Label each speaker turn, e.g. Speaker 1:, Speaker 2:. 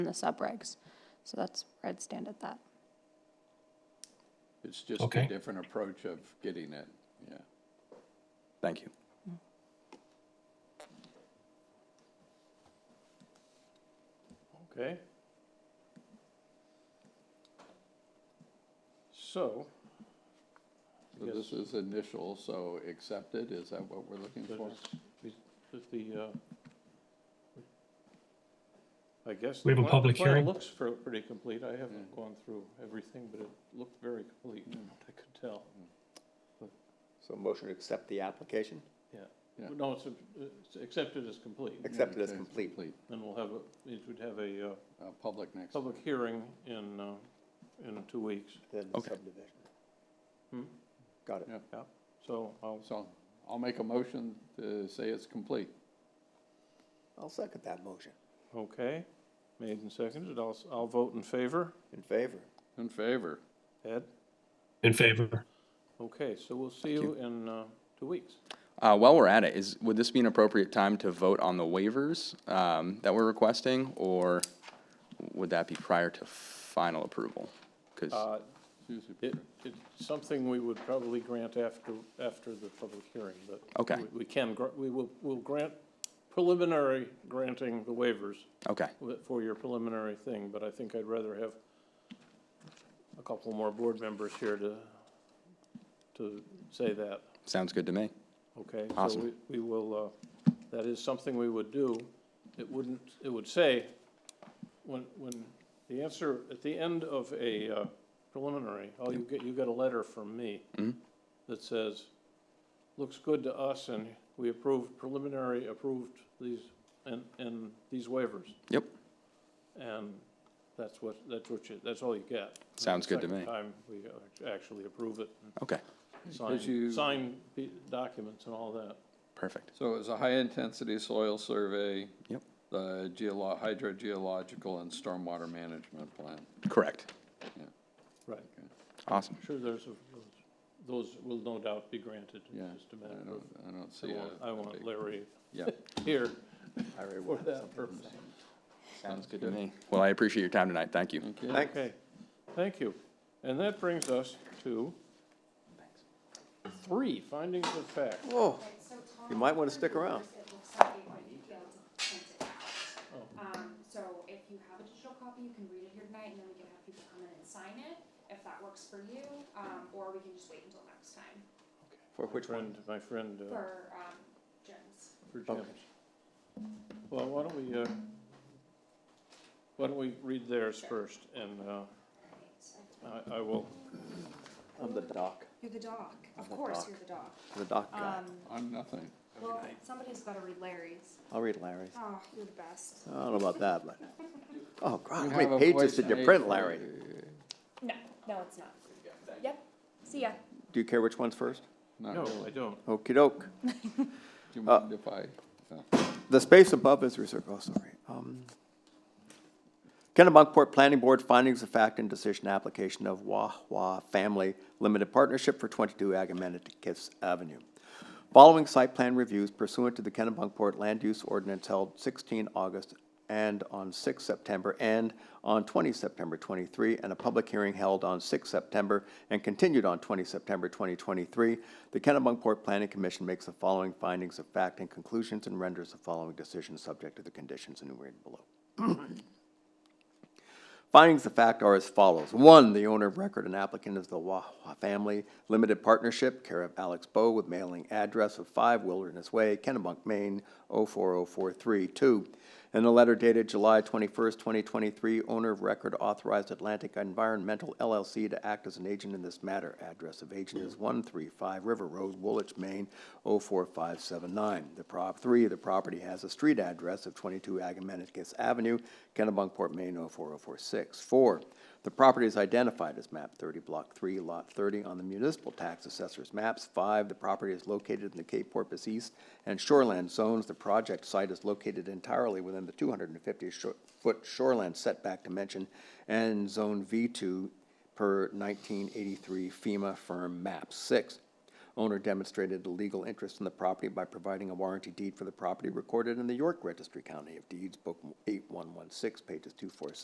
Speaker 1: in the subregs. So that's where I'd stand at that.
Speaker 2: It's just
Speaker 3: Okay.
Speaker 2: a different approach of getting it, yeah.
Speaker 4: Thank you.
Speaker 2: Okay. So.
Speaker 5: I
Speaker 2: So this is initial, so accepted, is that what we're looking
Speaker 5: That
Speaker 2: for?
Speaker 5: is- is the, uh, I guess.
Speaker 3: We
Speaker 5: the
Speaker 3: have a
Speaker 5: plan- the
Speaker 3: public
Speaker 5: plan
Speaker 3: hearing.
Speaker 5: Looks for, pretty complete. I
Speaker 2: Mm.
Speaker 5: haven't gone through everything, but it looked very complete, I could tell.
Speaker 6: So motion to accept the application,
Speaker 5: Yeah.
Speaker 2: Yeah.
Speaker 5: No, it's, it's accepted as complete.
Speaker 6: accept it as
Speaker 2: Okay,
Speaker 6: complete.
Speaker 5: Then we'll have, a- it would have a, uh,
Speaker 2: Uh, Public next.
Speaker 5: public hearing in, uh, in two weeks.
Speaker 6: Then the subdivision.
Speaker 5: Hmm?
Speaker 6: Got it.
Speaker 2: Yeah.
Speaker 5: Yeah. So I'll,
Speaker 2: So I'll make a motion to say it's complete.
Speaker 6: I'll second that motion.
Speaker 5: okay, made and seconded. I'll, s- I'll vote in favor.
Speaker 6: In favor?
Speaker 2: In favor?
Speaker 5: Ed?
Speaker 3: In favor.
Speaker 5: Okay, so we'll see you in, uh, two weeks.
Speaker 4: Uh, While we're at it, is, would this be an appropriate time to vote on the waivers um, that we're requesting? Or would that be prior to final approval? 'Cause-
Speaker 5: Uh,
Speaker 2: Susie,
Speaker 5: It, it's something we would probably grant after, after the public hearing, but.
Speaker 4: Okay.
Speaker 5: we- We can, gr- we will, we'll grant preliminary granting the waivers
Speaker 4: okay,
Speaker 5: wi- for your preliminary thing, but I think I'd rather have a couple more board members here to, to say that,
Speaker 4: sounds good to me.
Speaker 5: okay?
Speaker 4: Awesome.
Speaker 5: So we, we will, uh, that is something we would do. It wouldn't, it would say, when, when, the answer, at the end of a uh, preliminary, oh, you get, you get a letter from me
Speaker 4: Mm-hmm.
Speaker 5: that says, looks good to us, and we approved, preliminary approved these, and, and these waivers.
Speaker 4: Yep,
Speaker 5: And that's what, that's what you, that's all you get.
Speaker 4: Sounds good to
Speaker 5: Second
Speaker 4: me.
Speaker 5: Time we actually approve it, and
Speaker 4: okay,
Speaker 5: sign,
Speaker 2: you-
Speaker 5: sign the documents and all that.
Speaker 4: perfect.
Speaker 2: So it was a high-intensity soil survey.
Speaker 4: Yep.
Speaker 2: The geolo, hydrogeological and stormwater management plan.
Speaker 4: Correct,
Speaker 5: Right.
Speaker 4: awesome.
Speaker 5: Sure, there's, a- those will no doubt be granted
Speaker 2: Yeah,
Speaker 5: in just a
Speaker 2: I
Speaker 5: minute.
Speaker 2: don't, I don't
Speaker 5: I
Speaker 2: see
Speaker 5: want-
Speaker 2: a.
Speaker 5: I want Larry
Speaker 2: Yeah.
Speaker 5: here
Speaker 6: I already
Speaker 5: for
Speaker 6: won.
Speaker 5: that purpose.
Speaker 4: Sounds good to me. Well, I appreciate your time tonight, thank you.
Speaker 2: Thank you.
Speaker 6: Thanks.
Speaker 5: Okay, thank you. And that brings us to three findings of fact.
Speaker 6: Whoa, Oh, you might want to stick around.
Speaker 7: It looks like they might be able to print it out. Um, so if you have a digital copy, you can read it here tonight, and then we can have people come in and sign it, if that works for you, um, or we can just wait until next time
Speaker 6: For which one?
Speaker 5: Friend, my friend, uh,
Speaker 7: for, um, Jim's.
Speaker 5: for Jim's. Well, why don't we, uh, why don't we read theirs first, and, uh, I, I will,
Speaker 6: I'm the doc,
Speaker 7: You're the doc, of
Speaker 6: the
Speaker 7: course
Speaker 6: doc.
Speaker 7: you're the doc.
Speaker 6: the doc guy.
Speaker 7: Um,
Speaker 2: I'm nothing.
Speaker 7: well, somebody's gotta read Larry's.
Speaker 6: I'll read Larry's.
Speaker 7: Oh, you're the best.
Speaker 6: I don't know about that, but, oh,
Speaker 2: You
Speaker 6: God, how
Speaker 2: have a
Speaker 6: many pages
Speaker 2: voice
Speaker 6: did you
Speaker 2: made
Speaker 6: print,
Speaker 2: for
Speaker 6: Larry?
Speaker 7: No, no, it's not. Yep, see ya.
Speaker 6: Do you care which one's first?
Speaker 2: Not
Speaker 5: no,
Speaker 2: really.
Speaker 5: I don't.
Speaker 6: Okey doke.
Speaker 2: Do
Speaker 6: Uh,
Speaker 2: you mind if I? no.
Speaker 6: The space above is reserved, oh, sorry. Um, Kennebunkport Planning Board findings of fact and decision application of Wah Wah Family Limited Partnership for twenty-two Agamenticus Avenue. Following site plan reviews pursuant to the Kennebunkport Land Use Ordinance held sixteen August and on six September and on twenty September twenty-three, and a public hearing held on six September and continued on twenty September twenty twenty-three, the Kennebunkport Planning Commission makes the following findings of fact and conclusions and renders the following decision subject to the conditions enumerated below. Findings of fact are as follows. One, the owner of record and applicant is the Wah Wah Family Limited Partnership, care of Alex Bow with mailing address of 5 Wilderness Way, Kennebunk, Maine, 04043. Two, in a letter dated July 21st, 2023, owner of record authorized Atlantic Environmental LLC to act as an agent in this matter. Address of agent is 135 River Road, Woolwich, Maine, 04579. The prop, three, the property has a street address of 22 Agamenticus Avenue, Kennebunkport, Maine, 04046. Four, the property is identified as map 30, block 3, lot 30 on the municipal tax assessor's maps. Five, the property is located in the Cape Porpoise East and Shoreland zones. The project site is located entirely within the 250-foot shoreland setback dimension and Zone V2 per 1983 FEMA firm map. Six, Owner demonstrated a legal interest in the property by providing a warranty deed for the property recorded in the York Registry County of Deeds, Book eight one one six, pages two four six